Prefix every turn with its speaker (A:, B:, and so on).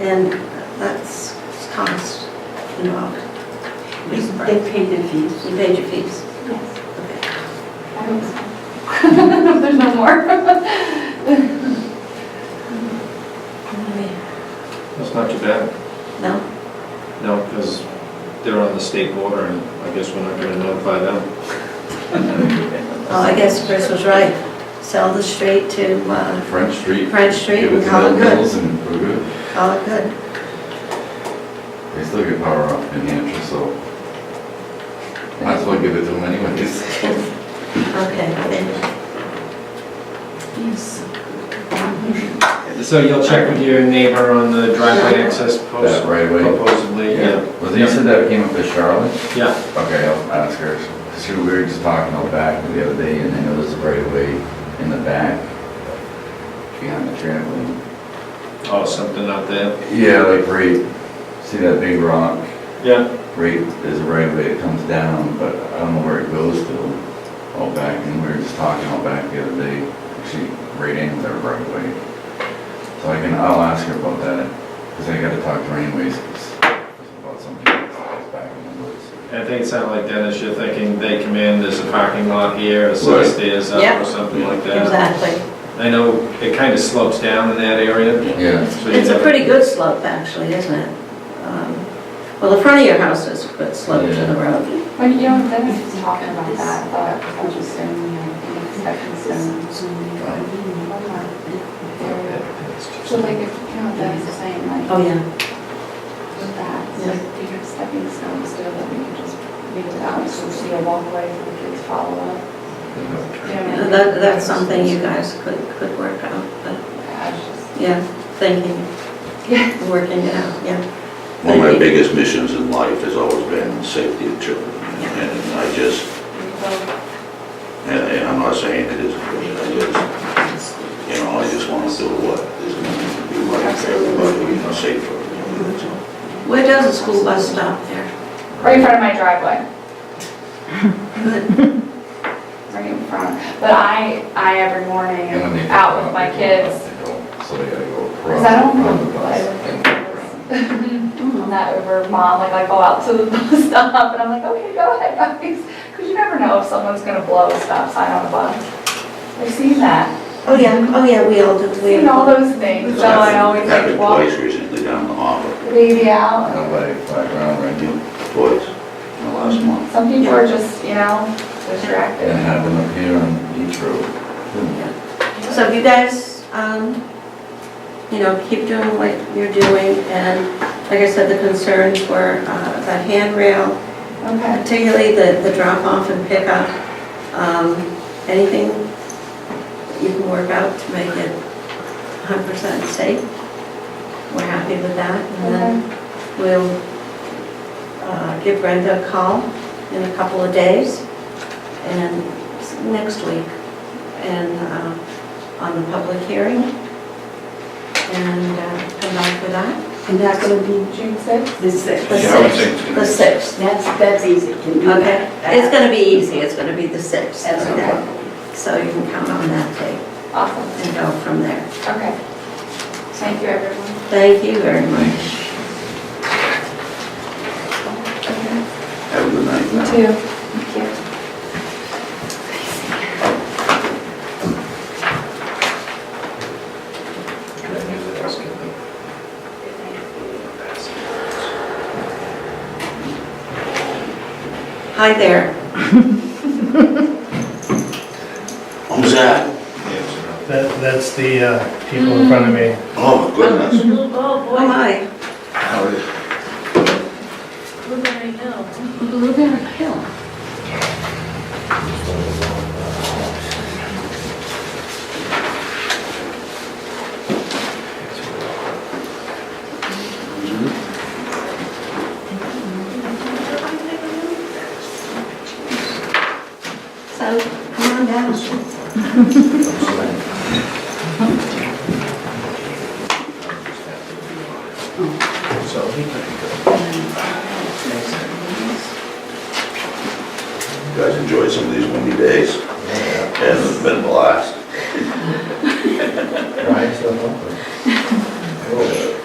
A: and that's cost involved.
B: They paid the fees.
A: You paid your fees.
C: Yes,
A: Okay.
C: I hope so. There's no more.
D: That's not too bad.
A: No?
D: No, because they're on the state border and I guess we're not gonna notify them.
A: Oh, I guess Chris was right. Sell the street to uh,
E: French Street.
A: French Street
E: Give
A: and
E: it to
A: call it
E: them
A: good.
E: bills and we're good.
A: Call it good.
E: They still get power up in Hampshire, so might as well give it to them anyways.
A: Okay, then,
D: So you'll check with your neighbor on the driveway access post?
E: That right away?
D: Supposedly, yeah.
E: Was it, you said that came up as Charlotte?
D: Yeah,
E: Okay, I'll ask her. She, we were just talking out back the other day, and I know there's a right of way in the back behind the trampoline.
D: oh, something out there.
E: Yeah, like right, see that big rock?
D: Yeah,
E: Right, there's a right of way that comes down, but I don't know where it goes to, all back, and we were just talking all back the other day. She, right in there right away. So I can, I'll ask her about that, because I gotta talk to her anyways, 'cause it's about something that's always back in the woods.
D: I think it sounded like Dennis, you're thinking they come in, there's a parking lot here, a set
E: Right.
D: of stairs up
A: Yeah.
D: or something like that.
A: exactly.
D: I know it kind of slopes down in that area.
E: Yeah.
D: so you
A: It's a
D: have-
A: pretty good slope, actually, isn't it? Um, Well, the front of your house is a good slope to the road.
C: When you know, then was talking about that, but I was just saying, you know, the expecting some. So like, if, you know, that's the same, like,
A: Oh, yeah.
C: with that, it's like, do you have stepping stones still that we can just leave it out, so see a walkway for the kids follow up? You know,
A: Yeah, That, that's something you guys could, could work out, but,
C: I was just-
A: yeah, thinking,
C: Yeah.
A: working it out, yeah.
F: One of my biggest missions in life has always been safety of children. And I just, and and I'm not saying it isn't, good, I just, you know, I just want to do what is going to be right for everybody, you know, safe for everybody, that's all.
A: Where does the school bus stop there?
C: Right in front of my driveway.
A: Good.
C: right in front. But I, I every morning
E: And when they
C: am
E: go
C: out with my
E: they go
C: kids,
E: up, they go- So they gotta go across.
C: because I don't
E: run
C: want
E: the
C: to
E: bus
C: play
E: and
C: with
E: go
C: kids.
E: around.
C: I'm not over mom, like I go out to the bus stop and I'm like, okay, go ahead, guys. Because you never know if someone's gonna blow a stop sign on a bus. I've seen that,
A: Oh, yeah, oh, yeah, we all do, we
C: seen all
A: all,
C: those things,
F: It's
C: so I always like
F: Happened
C: walk
F: twice recently down the harbor,
C: the baby out.
E: Nobody fly around right now.
F: twice, in the last month.
C: Some people are just, you know, distracted.
E: And have them up here on Beach Road.
A: so if you guys, um, you know, keep doing what you're doing, and like I said, the concerns were, uh, the handrail,
C: Okay.
A: particularly the, the drop off and pickup, um, anything you can work out to make it hundred percent safe. We're happy with that, and then we'll, uh, give Brenda a call in a couple of days, and s- next week, and, uh, on the public hearing, and, uh, come back with that.
B: And that's gonna be
C: June sixth?
B: the sixth.
A: The
E: Yeah, I would
A: sixth-
E: think it's
A: The
E: gonna be-
A: sixth.
B: That's, that's easy, can do
A: Okay,
B: that.
A: it's gonna be easy, it's gonna be the sixth.
B: That's okay.
A: So you can count on that day
C: Awesome,
A: and go from there.
C: okay. Thank you, everyone.
A: Thank you very much.
F: Have a good night.
C: You too. Thank you.
A: Hi there.
F: Who's that?
G: That, that's the uh, people in front of me.
F: Oh, my goodness.
A: Oh, hi.
F: How are you?
A: Blueberry Hill. So, come on down.
F: You Guys enjoy some of these windy days. And it's been a blast.
E: Right, so.